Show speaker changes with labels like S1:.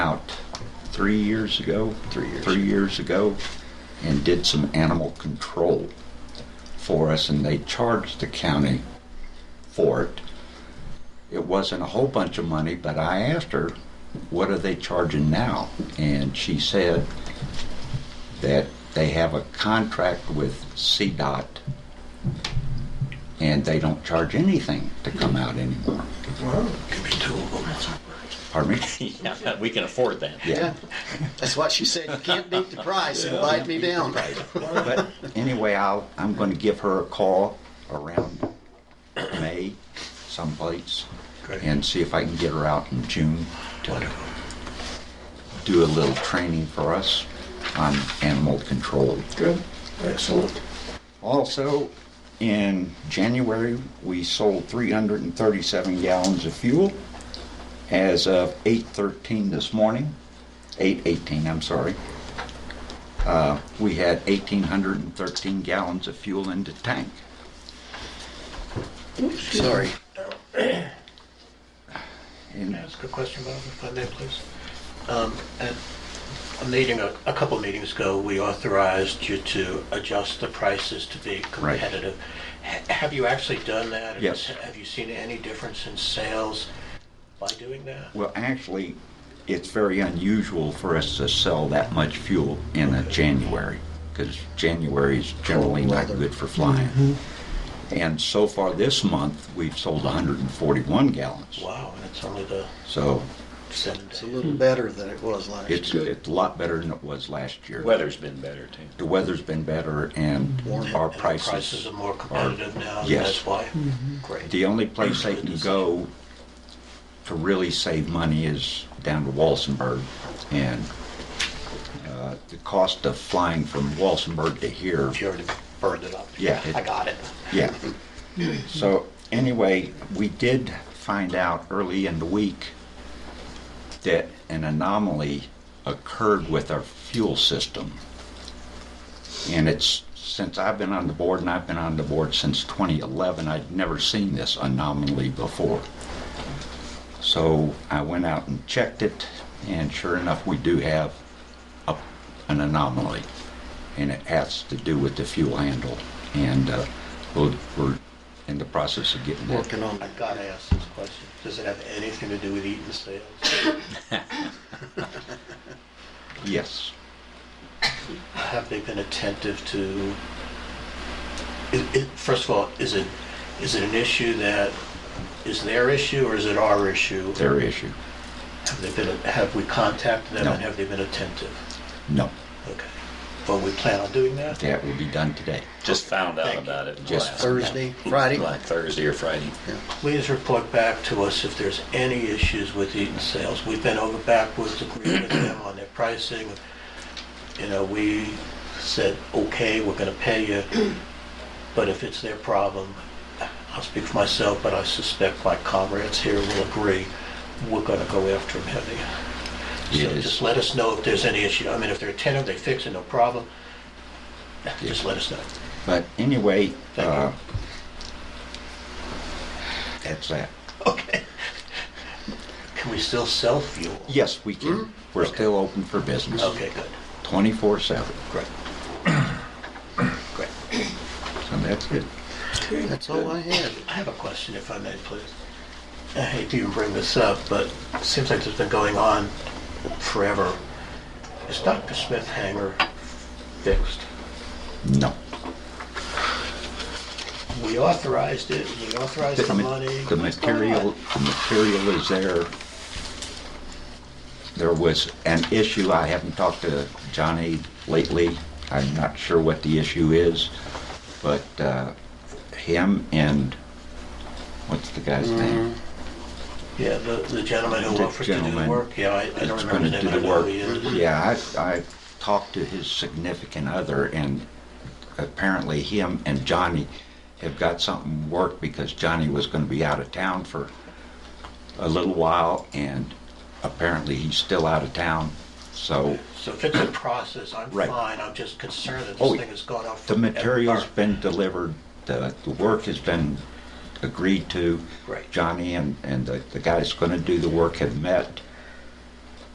S1: about three years ago, three years, three years ago, and did some animal control for us, and they charged the county for it. It wasn't a whole bunch of money, but I asked her, "What are they charging now?" And she said that they have a contract with CDOT, and they don't charge anything to come out anymore.
S2: Give me two of them.
S1: Pardon me?
S3: Yeah, we can afford that.
S2: Yeah, that's what she said. You can't beat the price. It bite me down.
S1: But anyway, I'll, I'm going to give her a call around May someplace
S4: Okay.
S1: and see if I can get her out in June to do a little training for us on animal control.
S2: Good. Excellent.
S1: Also, in January, we sold 337 gallons of fuel. As of 8:13 this morning, 8:18, I'm sorry, uh, we had 1,813 gallons of fuel in the tank.
S2: Sorry.
S1: And
S4: Can I ask a question about if I may, please? Um, At a meeting, a a couple meetings ago, we authorized you to adjust the prices to be
S1: Right.
S4: competitive. Ha- Have you actually done that? And
S1: Yes.
S4: Have you seen any difference in sales by doing that?
S1: Well, actually, it's very unusual for us to sell that much fuel in a January, because January is generally not
S2: weather.
S1: good for flying. And so far this month, we've sold 141 gallons.
S4: Wow, and it's only the
S1: So
S4: seven days.
S2: It's a little better than it was last
S1: it's,
S2: year.
S1: it's a lot better than it was last year.
S3: Weather's been better too.
S1: The weather's been better and
S2: Warm.
S1: our
S4: And the Prices
S1: prices.
S4: are more competitive now, and
S1: Yes.
S4: that's why?
S2: Mm-hmm.
S4: Great.
S1: The only place they can go to really save money is down to Walsenburg. And uh, the cost of flying from Walsenburg to here
S4: You already burned it up.
S1: Yeah, it-
S4: I got it.
S1: Yeah. So anyway, we did find out early in the week that an anomaly occurred with our fuel system. And it's, since I've been on the board, and I've been on the board since 2011, I'd never seen this anomaly before. So I went out and checked it, and sure enough, we do have a, an anomaly. And it has to do with the fuel handle. And uh, we'll, we're in the process of getting that.
S2: Working on
S4: oh I
S2: that.
S4: gotta ask this question. Does it have anything to do with eating sales?
S1: Yes.
S4: Have they been attentive to, i- i- first of all, is it, is it an issue that is their issue or is it our issue?
S1: their issue.
S4: Have they been, have we contacted them
S1: No.
S4: and have they been attentive?
S1: No,
S4: Okay. Well, we plan on doing that?
S1: that will be done today.
S3: Just found out
S4: Thank you.
S3: about it in the
S1: Just
S3: last,
S2: Thursday, Friday.
S3: like Thursday or Friday.
S4: Please report back to us if there's any issues with Eaton Sales. We've been over backwards agreeing with them on their pricing. You know, we said, okay, we're gonna pay you, but if it's their problem, I'll speak for myself, but I suspect my comrades here will agree, we're gonna go after them heavy.
S1: It
S4: So just
S1: is,
S4: let us know if there's any issue. I mean, if they're attentive, they fix it, no problem. Just let us know.
S1: but anyway,
S4: Thank you.
S1: uh, that's that.
S4: Okay. Can we still sell fuel?
S1: Yes, we can. Mm-hmm. We're still open for business,
S4: Okay, good.
S1: twenty-four seven.
S4: Great. Great.
S1: So that's it.
S2: That's all I had.
S4: I have a question, if I may, please. I hate to even bring this up, but it seems like it's been going on forever. Is Dr. Smith hangar fixed?
S1: No.
S4: We authorized it, we authorized the
S1: ma-
S4: money.
S1: The material, the material is there. There was an issue, I haven't talked to Johnny lately, I'm not sure what the issue is, but uh, him and, what's the guy's name?
S4: Yeah, the, the gentleman who
S1: The
S4: offered to do the
S1: gentleman
S4: work, yeah, I, I don't
S1: That's
S4: remember
S1: going
S4: his
S1: to
S4: name,
S1: do
S4: but I
S1: the
S4: know
S1: work.
S4: who he is.
S1: Yeah, I, I talked to his significant other, and apparently him and Johnny have got something worked because Johnny was going to be out of town for a little while, and apparently he's still out of town. So
S4: So if it's a process, I'm
S1: Right.
S4: fine, I'm just concerned that
S1: Oh,
S4: this thing has gone off.
S1: the material's been delivered, the, the work has been agreed to.
S4: Right.
S1: Johnny and, and the, the guy that's going to do the work have met,